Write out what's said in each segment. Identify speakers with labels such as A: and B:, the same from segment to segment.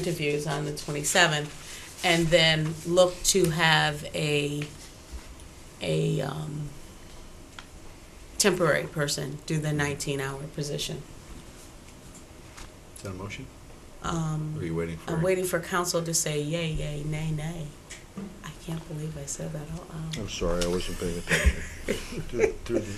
A: interviews on the 27th, and then look to have a, a um, temporary person do the 19-hour position.
B: Is that a motion? Or are
A: Um,
B: you waiting for?
A: I'm waiting for council to say yay, yay, nay, nay. I can't believe I said that out loud.
C: I'm sorry, I wasn't paying attention. Through- Through the,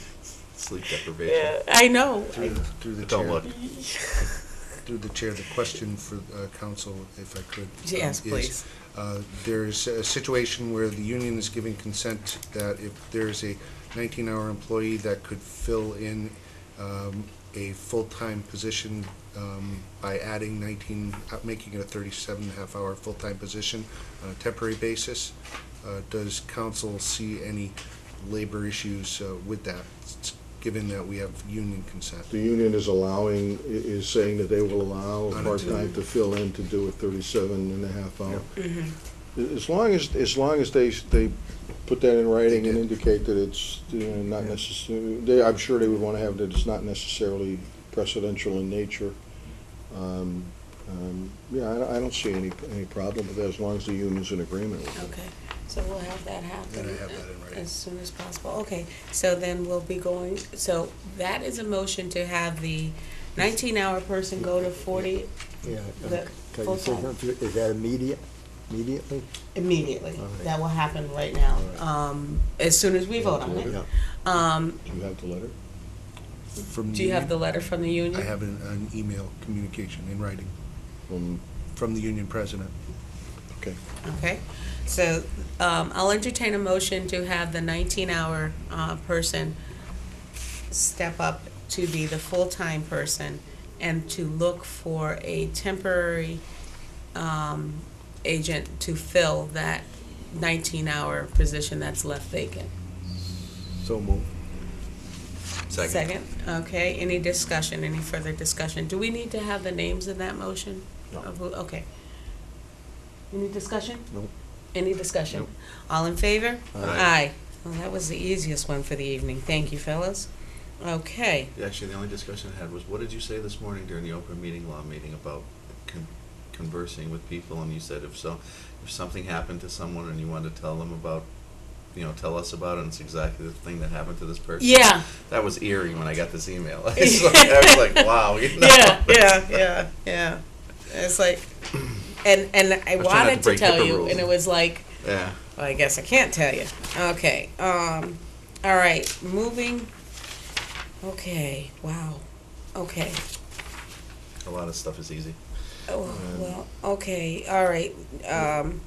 B: Sleep deprivation.
A: I know.
C: through the, through the
B: Don't
C: chair,
B: look.
C: through the chair, the question for uh, council, if I could. um,
A: Yes,
C: is,
A: please.
C: uh, There's a situation where the union is giving consent that if there's a 19-hour employee that could fill in um, a full-time position um, by adding 19, uh, making it a 37 and a half hour full-time position on a temporary basis, uh, does council see any labor issues uh, with that, s- given that we have union consent?
D: The union is allowing, i- is saying that they will allow
C: On
D: a
C: a
D: part-time to fill in to do a 37 and a half hour.
A: Mhm.
D: A- As long as, as long as they, s- they put that in writing and
C: did.
D: indicate that it's you know, not
C: Yeah.
D: necessarily, they, I'm sure they would want to have that it's not necessarily precedential in nature. Um, um, Yeah, I don't- I don't see any, any problem with that, as long as the union's in agreement with it.
A: Okay, so we'll have that happen.
C: And I have that in writing.
A: As soon as possible, okay, so then we'll be going, so that is a motion to have the nineteen-hour person go to forty
E: Yeah.
A: The
E: Can you say
A: full-time.
E: something? Is that immediate, immediately?
A: immediately.
E: All right.
A: That will happen right now,
D: All right.
A: um, as soon as we vote on it.
D: Yeah.
A: Um,
D: Do you have the letter?
C: From
A: do you have the letter from the union?
C: I have an, an email communication in writing
D: from-
C: from the union president.
D: Um, Okay.
A: Okay, so, um, I'll entertain a motion to have the nineteen-hour, uh, person step up to be the full-time person and to look for a temporary, um, agent to fill that nineteen-hour position that's left vacant.
E: So moved.
A: Second, okay, any discussion, any further discussion? Do we need to have the names in that motion?
D: No.
A: Of who- Okay. Any discussion?
E: Nope.
A: Any discussion?
B: Nope.
A: All in favor?
B: Aye.
A: Well, that was the easiest one for the evening. Thank you, fellas. Okay,
B: Actually, the only discussion I had was, what did you say this morning during the open meeting law meeting about con- conversing with people? And you said if so, if something happened to someone and you wanted to tell them about, you know, tell us about it, and it's exactly the thing that happened to this person.
A: yeah,
B: That was eerie when I got this email. It's like- I was like, wow, you know?
A: yeah, yeah, yeah, yeah. It's like, and, and I
B: was trying not to
A: wanted to
B: break
A: tell
B: HIPAA
A: you,
B: rules.
A: and it was like,
B: Yeah.
A: Well, I guess I can't tell you. Okay. Um, all right. Moving. Okay. Wow. Okay.
B: A lot of stuff is easy.
A: Oh,
D: Um,
A: well, okay. All right. Um,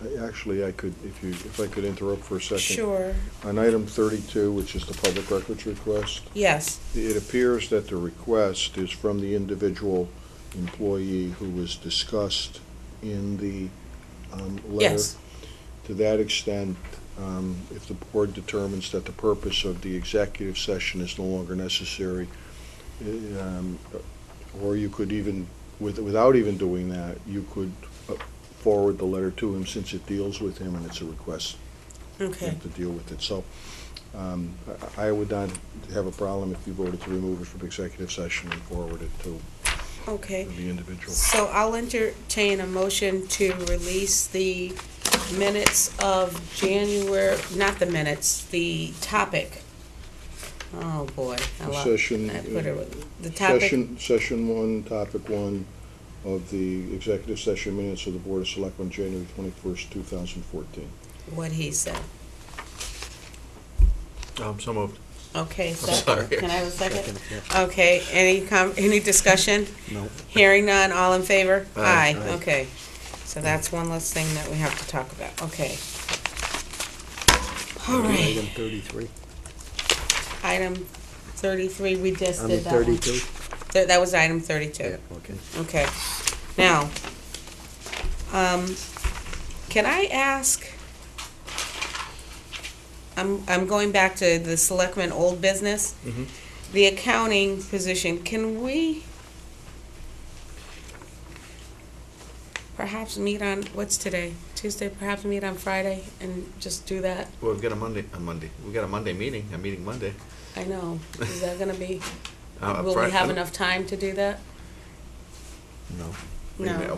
D: I- Actually, I could, if you, if I could interrupt for a second.
A: sure.
D: On item 32, which is the public records request,
A: Yes.
D: it appears that the request is from the individual employee who was discussed in the um, letter.
A: Yes.
D: To that extent, um, if the board determines that the purpose of the executive session is no longer necessary, eh, um, or you could even, with- without even doing that, you could uh, forward the letter to him since it deals with him and it's a request
A: Okay.
D: have to deal with it. So um, I I would not have a problem if you voted to remove it from executive session and forward it to
A: Okay.
D: the individual.
A: So I'll entertain a motion to release the minutes of January, not the minutes, the topic. Oh, boy. I lo-
D: Session,
A: I put it, the topic.
D: Session, session one, topic one of the executive session minutes of the Board of Selectmen, January twenty-first, two thousand fourteen.
A: what he said.
B: Um, so moved.
A: Okay, so,
B: sorry.
A: can I have a second?
E: Second, yeah.
A: Okay, any com, any discussion?
E: No.
A: Hearing none, all in favor?
B: Aye.
A: Aye, okay. So that's one less thing that we have to talk about, okay. All
E: Item
A: right,
E: thirty-three.
A: item thirty-three, we just
E: Item
A: did that one.
E: thirty-two?
A: Th- That was item thirty-two,
E: Okay.
A: okay. Now, um, can I ask? I'm, I'm going back to the selectmen old business.
E: Mm-hmm.
A: the accounting position, can we perhaps meet on, what's today? Tuesday, perhaps meet on Friday and just do that?
B: Well, we've got a Monday, a Monday. We've got a Monday meeting, a meeting Monday.
A: I know, is that gonna be,
B: Uh,
A: will we
B: Fri-
A: have enough time to do that?
E: No.
B: We may-
A: No.